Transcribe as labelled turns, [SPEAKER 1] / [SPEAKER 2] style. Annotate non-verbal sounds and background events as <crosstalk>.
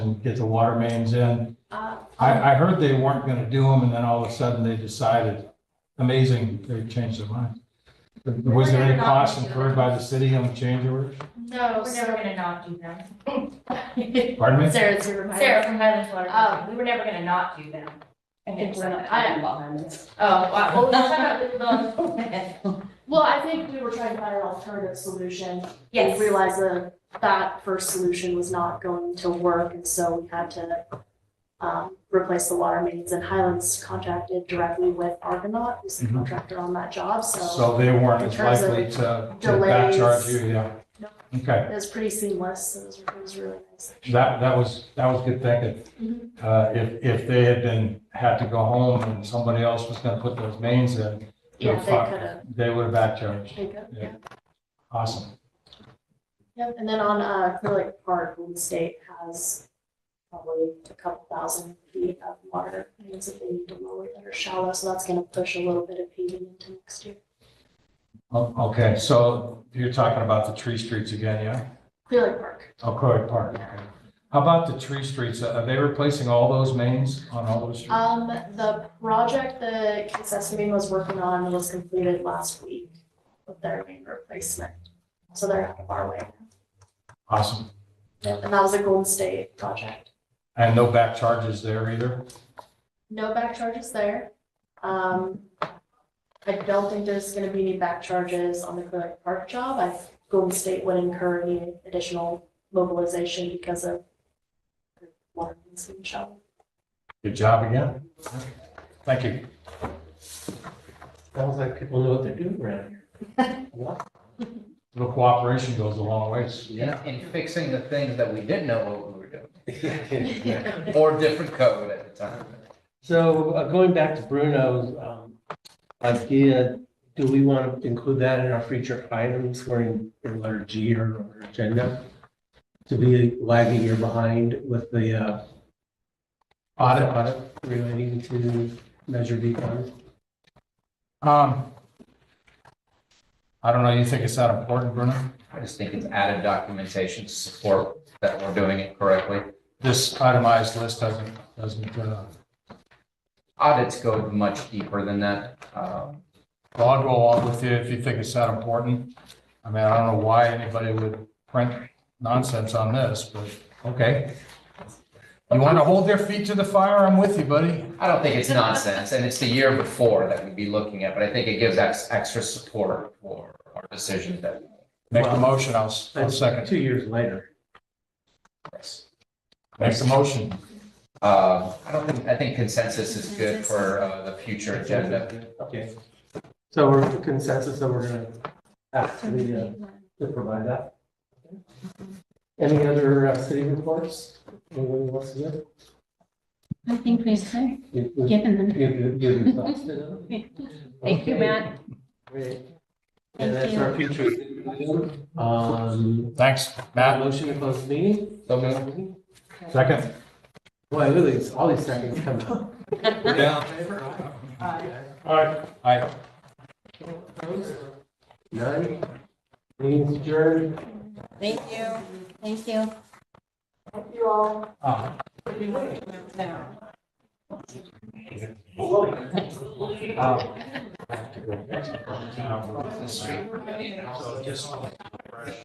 [SPEAKER 1] and get the water mains in.
[SPEAKER 2] Uh,
[SPEAKER 1] I, I heard they weren't gonna do them, and then all of a sudden they decided, amazing, they changed their mind. Was there any cost incurred by the city on the change order?
[SPEAKER 2] No,
[SPEAKER 3] We're
[SPEAKER 2] <laughs>
[SPEAKER 3] never
[SPEAKER 2] so,
[SPEAKER 3] gonna not do them.
[SPEAKER 1] Pardon me?
[SPEAKER 3] Sarah's your reminder.
[SPEAKER 2] Sarah
[SPEAKER 3] from Highlands Water.
[SPEAKER 2] Company.
[SPEAKER 3] we were never gonna not do them.
[SPEAKER 2] I think we're not-
[SPEAKER 3] I am.
[SPEAKER 2] oh, wow, well, we were <laughs>
[SPEAKER 3] <laughs>
[SPEAKER 2] talking about the-
[SPEAKER 3] Yes.
[SPEAKER 2] well, I think we were trying to find an alternative solution. We realized that that first solution was not going to work, and so we had to um, replace the water mains, and Highlands contracted directly with Argonaut, who's the
[SPEAKER 1] Mhm.
[SPEAKER 2] contractor on that job, so
[SPEAKER 1] So they weren't
[SPEAKER 2] In
[SPEAKER 1] as
[SPEAKER 2] terms of
[SPEAKER 1] likely to, to back charge you, yeah.
[SPEAKER 2] No.
[SPEAKER 1] Okay,
[SPEAKER 2] it was pretty seamless, it was, it was really nice.
[SPEAKER 1] that, that was, that was good thinking.
[SPEAKER 2] Mhm.
[SPEAKER 1] Uh, if, if they had been, had to go home and somebody else was gonna put those mains in, they
[SPEAKER 2] Yeah,
[SPEAKER 1] would,
[SPEAKER 2] they could have,
[SPEAKER 1] they would have back charged.
[SPEAKER 2] they could, have, yeah.
[SPEAKER 1] Yeah. Awesome.
[SPEAKER 2] Yep, and then on uh, Clear Lake Park, Golden State has probably a couple thousand feet of water mains that they need to lower that are shallow, so that's gonna push a little bit of paving into next year.
[SPEAKER 1] O- Okay, so you're talking about the tree streets again, yeah?
[SPEAKER 2] Clear Lake Park,
[SPEAKER 1] Oh, Croy Park. okay. How about the tree streets? Are they replacing all those mains on all those streets?
[SPEAKER 2] um, the project that Kidsesame was working on was completed last week with their main replacement, so they're out of our way.
[SPEAKER 1] Awesome.
[SPEAKER 2] Yep, And that was a Golden State project.
[SPEAKER 1] And no back charges there either?
[SPEAKER 2] No back charges there. Um, I don't think there's gonna be any back charges on the Clear Lake Park job. I, Golden State would incur any additional mobilization because of water mains being shoveled.
[SPEAKER 1] Good job again. Thank you.
[SPEAKER 4] Sounds like people know what they're doing around here.
[SPEAKER 1] Little cooperation goes a long ways.
[SPEAKER 5] in, in fixing the things that we didn't know what we were doing,
[SPEAKER 4] Yeah.
[SPEAKER 5] or different code at the time.
[SPEAKER 4] <laughs> So uh, going back to Bruno's um, idea, do we want to include that in our future items or in, in letter G or on our agenda? To be lagging or behind with the uh, audit, audit relating to Measure B funds?
[SPEAKER 1] Um, I don't know, you think it's that important, Bruno?
[SPEAKER 5] I just think it's added documentation to support that we're doing it correctly.
[SPEAKER 1] This itemized list doesn't, doesn't, uh,
[SPEAKER 5] Audits go much deeper than that. Um,
[SPEAKER 1] well, I'll go along with you if you think it's that important. I mean, I don't know why anybody would print nonsense on this, but okay. You want to hold their feet to the fire? I'm with you, buddy.
[SPEAKER 5] I don't think it's nonsense, and it's the year before that we'd be looking at, but I think it gives ex- extra support for our decisions that. we
[SPEAKER 1] Make the motion, I'll, s- I'll
[SPEAKER 4] That's
[SPEAKER 1] second.
[SPEAKER 4] Two years later.
[SPEAKER 5] press.
[SPEAKER 1] Make the motion.
[SPEAKER 5] Uh, I don't think, I think consensus is good for uh, the future agenda.
[SPEAKER 4] Okay. So we're consensus that we're gonna ask the, uh, to provide that. Any other uh, city reports? Anyone wants to give?
[SPEAKER 3] I think we've kind
[SPEAKER 4] Give-
[SPEAKER 3] of
[SPEAKER 4] give-
[SPEAKER 3] given them.
[SPEAKER 4] give- give your thoughts to them?
[SPEAKER 3] Thank you,
[SPEAKER 4] Okay,
[SPEAKER 3] Matt.
[SPEAKER 4] great.
[SPEAKER 3] Thank
[SPEAKER 4] And that's our future. city item. Um,
[SPEAKER 1] Thanks, Matt.
[SPEAKER 4] motion to close the meeting?
[SPEAKER 5] So moved.
[SPEAKER 1] Second.
[SPEAKER 4] Boy, really, it's all these seconds come up.
[SPEAKER 1] Yeah. All right. Aye.
[SPEAKER 4] None? Meeting's adjourned.
[SPEAKER 3] Thank you. Thank you.
[SPEAKER 2] You all
[SPEAKER 1] Uh,
[SPEAKER 3] No.
[SPEAKER 1] Um, I have to go back to the town. So just.